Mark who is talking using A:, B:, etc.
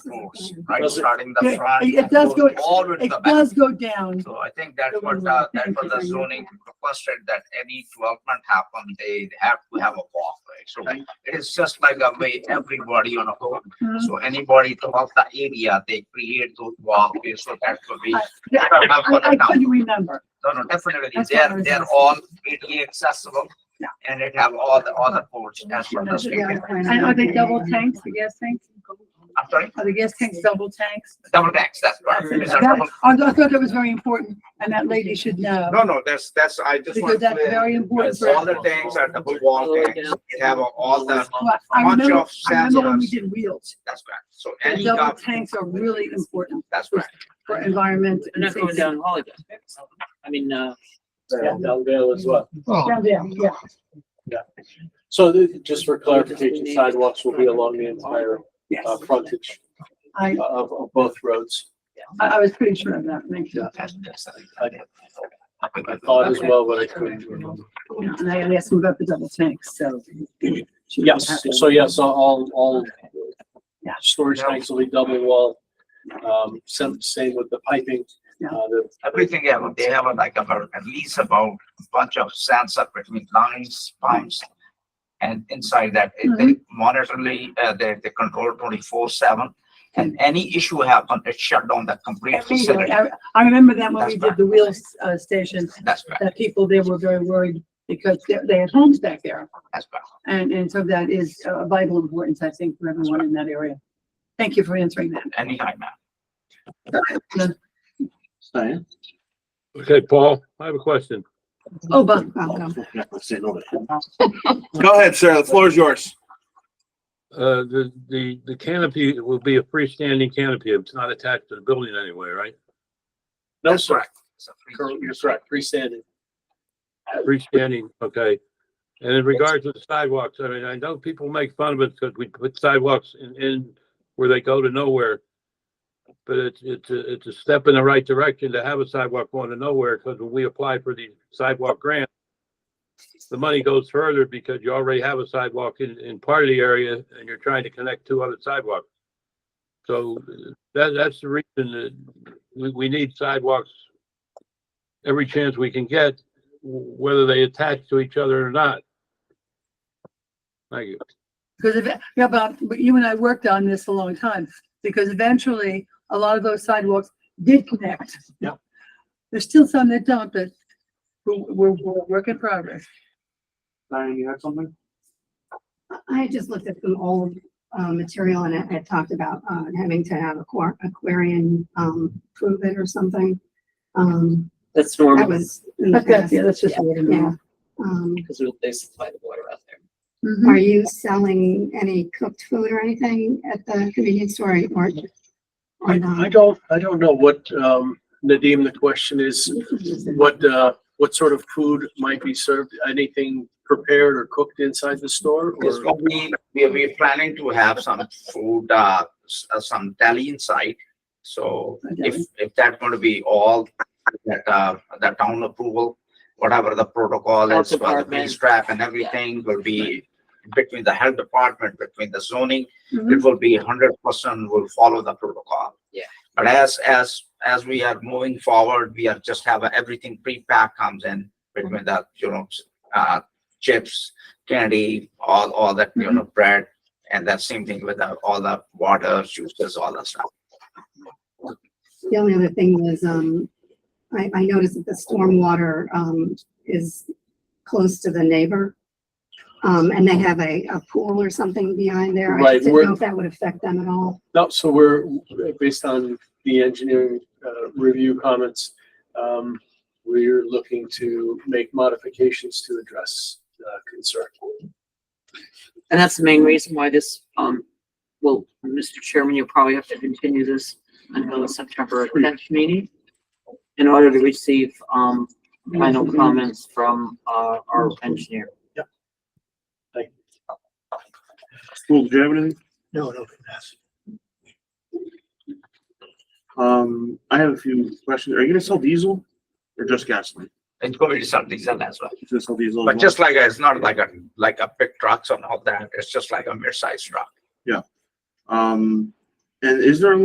A: moves,
B: Mm-hmm.
A: right,
C: Does it-
A: starting the
B: Yeah,
A: front.
B: it does
A: goes
B: go-
A: All with
B: It
A: the back.
B: does go down.
A: So I think that's what, the- that was the zoning requested, that any development happen, they have to have a walkway. So it is just like a way everybody on a whole,
B: Mhm.
A: so anybody throughout the area, they create those walkways, so that could be.
B: I yeah, I- I- I couldn't remember.
A: No, no, definitely,
B: That's what I
A: they're,
B: was
A: they're
B: asking.
A: all ADA accessible.
B: Yeah.
A: And it have all the, all the ports, that's what the state,
B: And are they double tanks, the gas tanks?
A: I'm sorry,
B: Are the gas tanks double tanks?
A: double decks, that's right.
B: That's it.
A: It's a
B: That-
A: double-
B: I thought that was very important and that lady should know.
D: No, no, that's, that's, I just
B: Because
D: want to
B: that's
D: clear,
B: very important. for
D: all the tanks are double wall tanks, they have all the,
B: Well, I
D: bunch
B: remember,
D: of
B: I remember when we
D: sensors.
B: did wheels.
D: that's correct. So
B: The
D: any,
B: double
D: gov-
B: tanks are really important
D: that's correct.
B: for environment and
E: They're not going
B: safety.
E: down Holly. I mean, uh,
C: Yeah, Belleville as well.
B: Down there, yeah.
C: So th- just for clarification, sidewalks will be along the entire
B: Yes,
C: uh, frontage uh,
B: I,
C: of, of both roads.
B: I I was pretty sure of that, thank you.
C: I thought as well, but I couldn't remember.
B: Yeah, And I had asked him about the double tanks, so.
C: Yes, so yes, all, all
B: Yeah.
C: storage tanks will be double wall. Um, same, same with the piping.
B: Yeah.
C: Uh, the
A: Everything, yeah, they have a, like about, at least about a bunch of sensor between lines, pumps. And inside that, it- they
B: Mm-hmm.
A: monitorly, uh, they, they control twenty-four seven. And any issue happen, it shut down the complete facility.
B: I I remember that when we did the wheels uh, station,
A: That's right,
B: that people there were very worried because they, they had homes back there.
A: that's right.
B: And, and so that is uh, vital importance, I think, for everyone in that area. Thank you for answering that.
A: Anytime, man.
F: Okay, Paul, I have a question.
B: Oh, Bob, welcome.
D: Go ahead, sir, the floor is yours.
F: Uh, the, the, the canopy will be a freestanding canopy. It's not attached to the building anyway, right?
C: No,
A: That's
C: sir,
A: correct. It's a free-
C: Cor- you're correct, freestanding.
F: Freestanding, okay. And in regards to the sidewalks, I mean, I know people make fun of it because we put sidewalks in, in where they go to nowhere. But it's, it's, a- it's a step in the right direction to have a sidewalk going to nowhere because when we apply for the sidewalk grant, the money goes further because you already have a sidewalk in, in part of the area and you're trying to connect two other sidewalks. So uh, that, that's the reason that we, we need sidewalks every chance we can get w- whether they attach to each other or not. Thank you.
B: Because if, yeah, Bob, but you and I worked on this a long time because eventually a lot of those sidewalks did connect.
C: Yeah.
B: There's still some that don't, but we're, we're, we're a work in progress.
D: Diane, you had something?
G: I just looked at some old uh, material and it, it talked about uh, having to have a quar- aquarium um, prove it or something. Um,
E: that's
G: that
E: normal
G: was in the past.
B: yeah, that's just.
G: Yeah. Um,
E: because they supply the water out there.
B: Mhm.
G: are you selling any cooked food or anything at the convenience store or? or
C: I,
G: not?
C: I don't, I don't know what, um, Nadeem, the question is, what, uh, what sort of food might be served? Anything prepared or cooked inside the store
A: Yes,
C: or?
A: so we, we, we're planning to have some food, uh, s- uh, some deli inside. So if, if that's going to be all that, uh, the town approval, whatever the protocol
E: Health
A: is for the
E: department.
A: police trap and everything will be between the health department, between the zoning, it
B: Mhm.
A: will be hundred percent will follow the protocol.
E: Mm-hmm. Yeah.
A: But as, as, as we are moving forward, we are just have a- everything pre-packed comes in between the, you know, uh, chips, candy, all, all that, you know,
E: Mm-hmm.
A: bread. And that same thing with the- all the water, juices, all that stuff.
G: The only other thing was, um, I, I noticed that the stormwater, um, is close to the neighbor. Um, and they have a, a pool or something behind there. I
C: Right,
G: just didn't
C: we're-
G: know if that would affect them at all.
C: No, so we're, based on the engineering, uh, review comments, um, we're looking to make modifications to address, uh, concern.
E: And that's the main reason why this, um, well, Mr. Chairman, you'll probably have to continue this until the September
G: Hmm.
E: tenth meeting in order to receive, um, final
G: Hmm.
E: comments from, uh, our engineer.
H: Well, do you have anything?
C: No, no, that's.
H: Um, I have a few questions. Are you gonna sell diesel or just gasoline?
A: It's going to be some diesel as well.
H: You gonna sell diesel? as
A: But
H: well?
A: just like, it's not like a, like a big trucks and all that. It's just like a mid-sized truck.
H: Um, And is there a